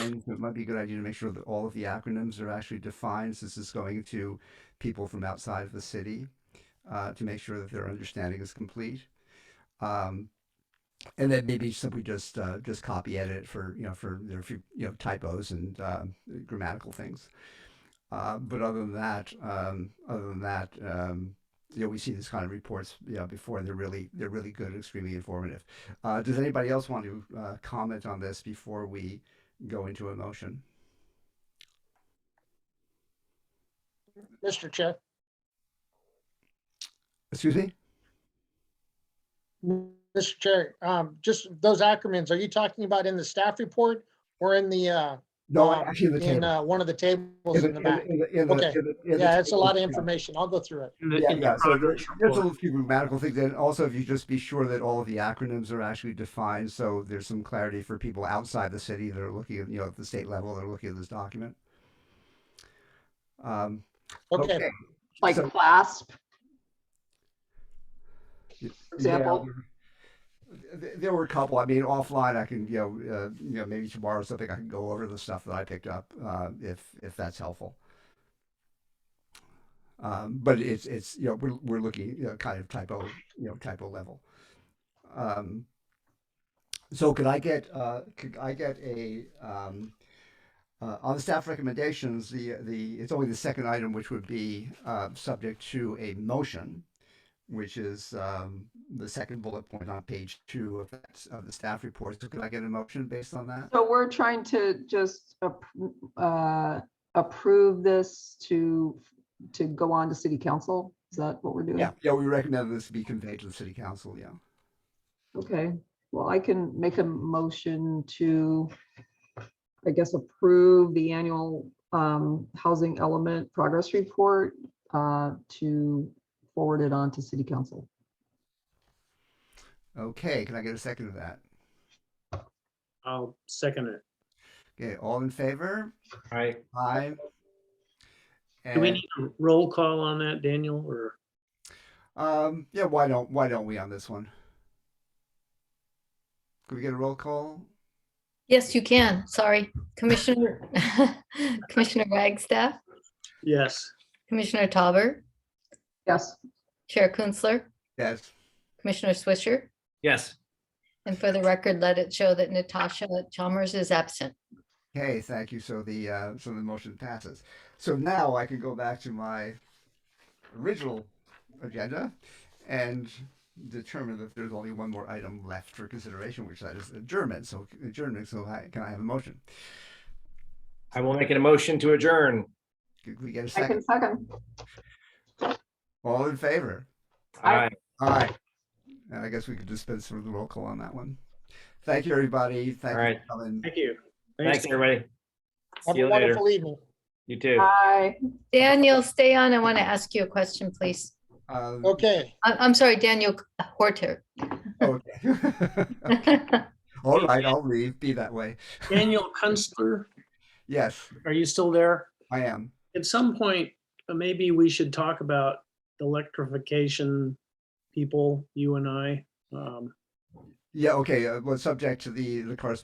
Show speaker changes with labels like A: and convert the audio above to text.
A: acronyms, but it might be a good idea to make sure that all of the acronyms are actually defined since it's going to people from outside of the city uh, to make sure that their understanding is complete. Um, and then maybe simply just uh, just copy edit for you know for their few you know typos and uh, grammatical things. Uh, but other than that, um, other than that, um, you know, we see this kind of reports you know, before, and they're really they're really good, extremely informative. Uh, does anybody else want to uh, comment on this before we go into a motion?
B: Mr. Chair,
A: Excuse me.
B: Mr. Chair, um, just those acronyms, are you talking about in the staff report or in the, uh,
A: No,
B: um,
A: actually, in the
B: in,
A: table.
B: uh, one of the tables in the back? Okay. Yeah,
A: Yeah,
B: it's a lot of information. I'll go through it.
C: in the,
A: Yeah,
C: in the
A: yeah. So there-
C: progress
A: there's
C: report.
A: a few grammatical things, and also if you just be sure that all of the acronyms are actually defined, so there's some clarity for people outside the city that are looking at you know at the state level, they're looking at this document. Um,
B: Okay,
D: like
A: So-
D: clasp.
A: Yeah,
D: For example,
A: there- th- There were a couple. I mean, offline, I can you know, uh, you know maybe tomorrow or something I can go over the stuff that I picked up uh, if if that's helpful. Um, but it's it's you know we're we're looking you know, kind of typo you know typo level. Um, so could I get uh, could I get a um, uh, on the staff recommendations the the it's only the second item which would be uh, subject to a motion which is um, the second bullet point on page two of, that, of the staff report. So could I get a motion based on that?
D: so we're trying to just appro- uh, approve this to, to go on to city council? Is that what we're doing?
A: Yeah, yeah, we recommend this be conveyed to the city council, yeah.
D: Okay, well, I can make a motion to, I guess, approve the annual um, housing element progress report uh, to forward it on to city council.
A: Okay, can I get a second of that?
C: I'll second it.
A: Okay, all in favor?
C: Right.
A: Aye.
C: Do we
A: And,
C: need a roll call on that, Daniel, or?
A: um, yeah, why don't, why don't we on this one? Could we get a roll call?
E: Yes, you can. Sorry. Commissioner, Commissioner Wagstaff,
C: Yes,
E: Commissioner Tauber,
D: Yes,
E: Chair Kunzler,
A: Yes,
E: Commissioner Swisher.
F: Yes,
E: And for the record, let it show that Natasha Chalmers is absent.
A: okay, thank you. So the, uh, so the motion passes. So now I can go back to my original agenda and determine that there's only one more item left for consideration, which that is adjournment. So adjournment, so I, can I have a motion?
F: I will make an motion to adjourn.
A: Could we get a
D: I can
A: second?
D: second.
A: All in favor?
D: Aye.
F: Aye.
A: Aye. And I guess we could dispense with the roll call on that one. Thank you, everybody. Thank you,
F: Alright.
A: for coming.
C: thank you.
F: Thanks, everybody.
B: have
F: See
B: a
F: you later.
B: wonderful evening.
F: You too.
D: Aye.
E: Daniel, stay on. I want to ask you a question, please.
A: Um,
B: Okay,
E: I- I'm sorry, Daniel Horter.
A: okay. Um, All right, I'll leave. Be that way.
C: Daniel Kunstler,
A: Yes,
C: are you still there?
A: I am.
C: At some point, uh, maybe we should talk about electrification people, you and I. Um,
A: Yeah, okay. Uh, well, subject to the the correspondence